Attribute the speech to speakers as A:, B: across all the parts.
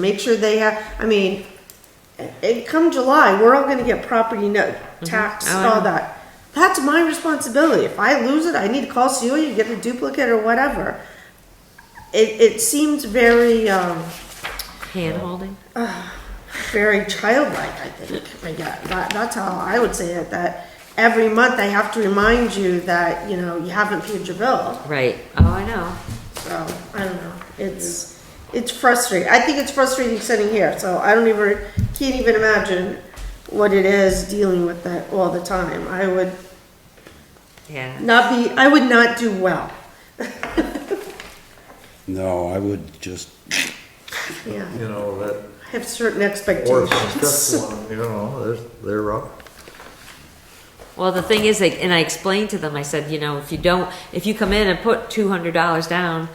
A: Make sure they have, I mean, and come July, we're all gonna get property no, tax,
B: Oh, I
A: all
B: know.
A: that. That's my responsibility. If I lose it, I need to call Celia, get a duplicate or whatever. It, it seems very, um,
B: Hand holding?
A: very childlike, I think. I get, that, that's how I would say it, that every month they have to remind you that, you know, you haven't paid your bill.
B: Right. Oh, I know.
A: So, Oh, I don't know, it's, it's frustrating, I think it's frustrating sitting here, so I don't even, can't even imagine what it is dealing with that all the time, I would
B: Yeah.
A: not be, I would not do well,
C: No, I would just,
A: yeah,
D: you know, that,
A: I have certain
D: or if
A: expectations.
D: it's just one, you know, there's, they're rough.
B: Well, the thing is, like, and I explained to them, I said, you know, if you don't, if you come in and put two hundred dollars down,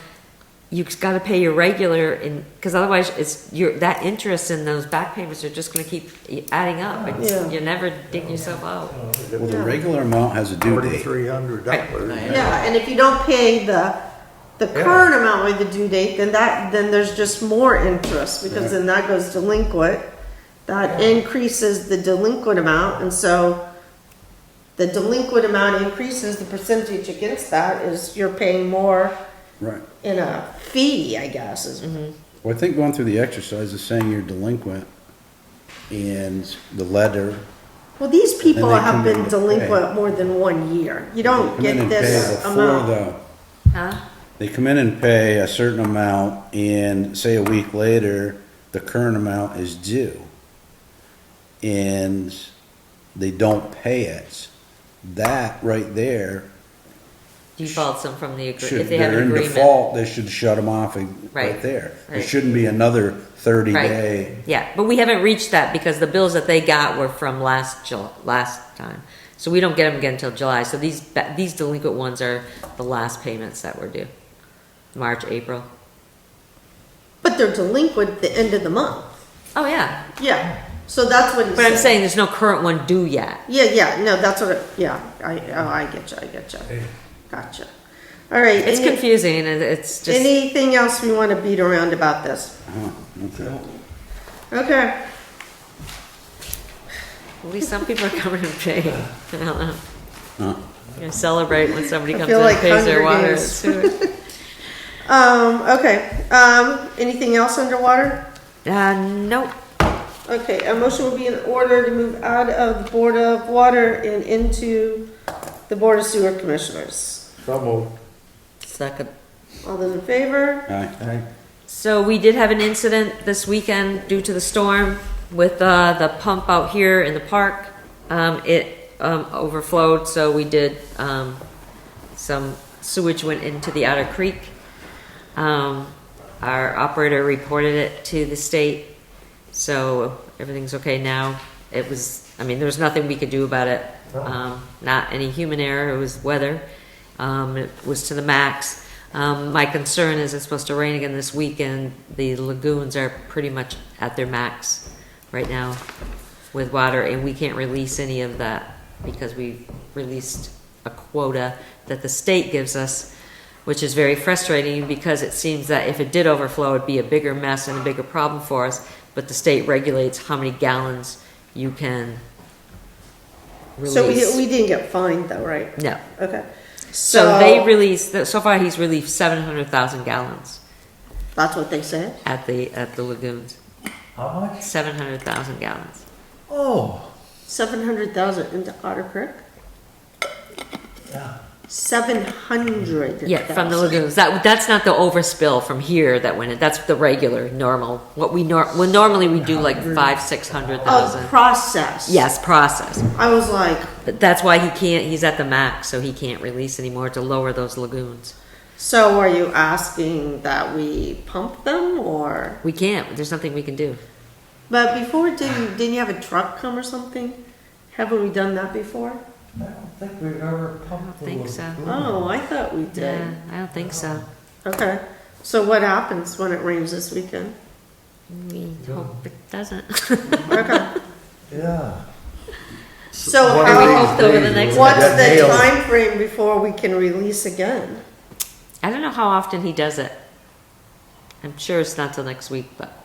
B: you've got to pay your regular, and because otherwise, it's your that interest in those back payments are just going to keep adding up. It's,
A: Yeah.
B: You're never digging yourself out.
C: well, the regular amount has a due date.
D: Forty-three hundred dollars.
A: Yeah, and if you don't pay the, the current amount with the due date, then that, then there's just more interest, because then that goes delinquent. That increases the delinquent amount, and so the delinquent amount increases, the percentage against that is you're paying more
C: Right.
A: in a fee, I guess, is
C: Mm-hmm. Well, I think going through the exercise of saying you're delinquent and the letter,
A: Well, these people
C: And they
A: have
C: come in
A: been
C: to
A: delinquent more than one year, you don't
C: come in
A: get
C: and pay
A: this
C: before
A: amount.
C: the,
B: Huh?
C: they come in and pay a certain amount and say a week later, the current amount is due. And they don't pay it. That right there
B: Defaults them from the agree-
C: should,
B: if they have
C: they're
B: an
C: in
B: agreement.
C: default, they should shut them off right
B: Right,
C: there. There
B: right.
C: shouldn't be another thirty
B: Right.
C: day.
B: Yeah, but we haven't reached that because the bills that they got were from last Jul- last time. So we don't get them again until July. So these ba- these delinquent ones are the last payments that were due. March, April.
A: But they're delinquent the end of the month,
B: Oh yeah.
A: yeah, so that's what. he's
B: But I'm saying there's no current one due yet.
A: Yeah, yeah, no, that's what, it- yeah, I, oh, I get you, I get you. Gotcha. All right,
B: It's
A: any-
B: confusing and it's just
A: anything else we want to beat around about this?
C: Huh, Oh, okay.
A: Okay,
B: at least some people are coming and paying. I don't know.
C: Huh.
B: You're gonna celebrate when somebody
A: I
B: comes in
A: feel
B: and
A: like
B: pays their
A: Hunger
B: water and
A: Games.
B: sewer.
A: um, okay, um, anything else underwater?
B: Uh, nope.
A: Okay, a motion would be in order to move out of the Board of Water and into the Board of Sewer Commissioners.
D: So moved.
B: Second.
A: All those in favor?
C: Aye.
B: So we did have an incident this weekend due to the storm with uh, the pump out here in the park. Um, it um, overflowed, so we did um, some sewage went into the outer creek. Um, our operator reported it to the state, so everything's okay now. It was, I mean, there was nothing we could do about it. Um, not any human error, it was weather. Um, it was to the max. Um, my concern is it's supposed to rain again this weekend. The lagoons are pretty much at their max right now with water, and we can't release any of that because we've released a quota that the state gives us, which is very frustrating because it seems that if it did overflow, it'd be a bigger mess and a bigger problem for us. But the state regulates how many gallons you can
A: So we,
B: release.
A: we didn't get fined though, right?
B: No.
A: Okay.
B: So they released, so far he's released seven hundred thousand gallons
A: That's what they said?
B: at the, at the lagoons,
D: How much?
B: seven hundred thousand gallons.
D: Oh,
A: Seven hundred thousand into Otter Creek?
D: yeah.
A: Seven hundred.
B: Yeah, from the lagoons. That, that's not the overspill from here that went in. That's the regular, normal, what we nor, well, normally we do like five, six hundred
A: Oh,
B: thousand.
A: process.
B: Yes, process.
A: I was like,
B: But that's why he can't, he's at the max, so he can't release anymore to lower those lagoons.
A: so are you asking that we pump them or?
B: We can't, there's nothing we can do.
A: But before, didn't, didn't you have a truck come or something? Haven't we done that before?
D: I don't think we've ever pumped.
B: I don't think so.
A: Oh, I thought we
B: Yeah,
A: did.
B: Uh, I don't think so.
A: Okay, so what happens when it rains this weekend?
B: We hope it doesn't.
A: Okay,
D: Yeah.
A: so
D: One of
B: Or we
D: these
A: how,
B: hope over the
D: days
B: next-
D: we'll
A: what's
D: get
A: the
D: nailed.
A: time frame before we can release again?
B: I don't know how often he does it. I'm sure it's not till next week, but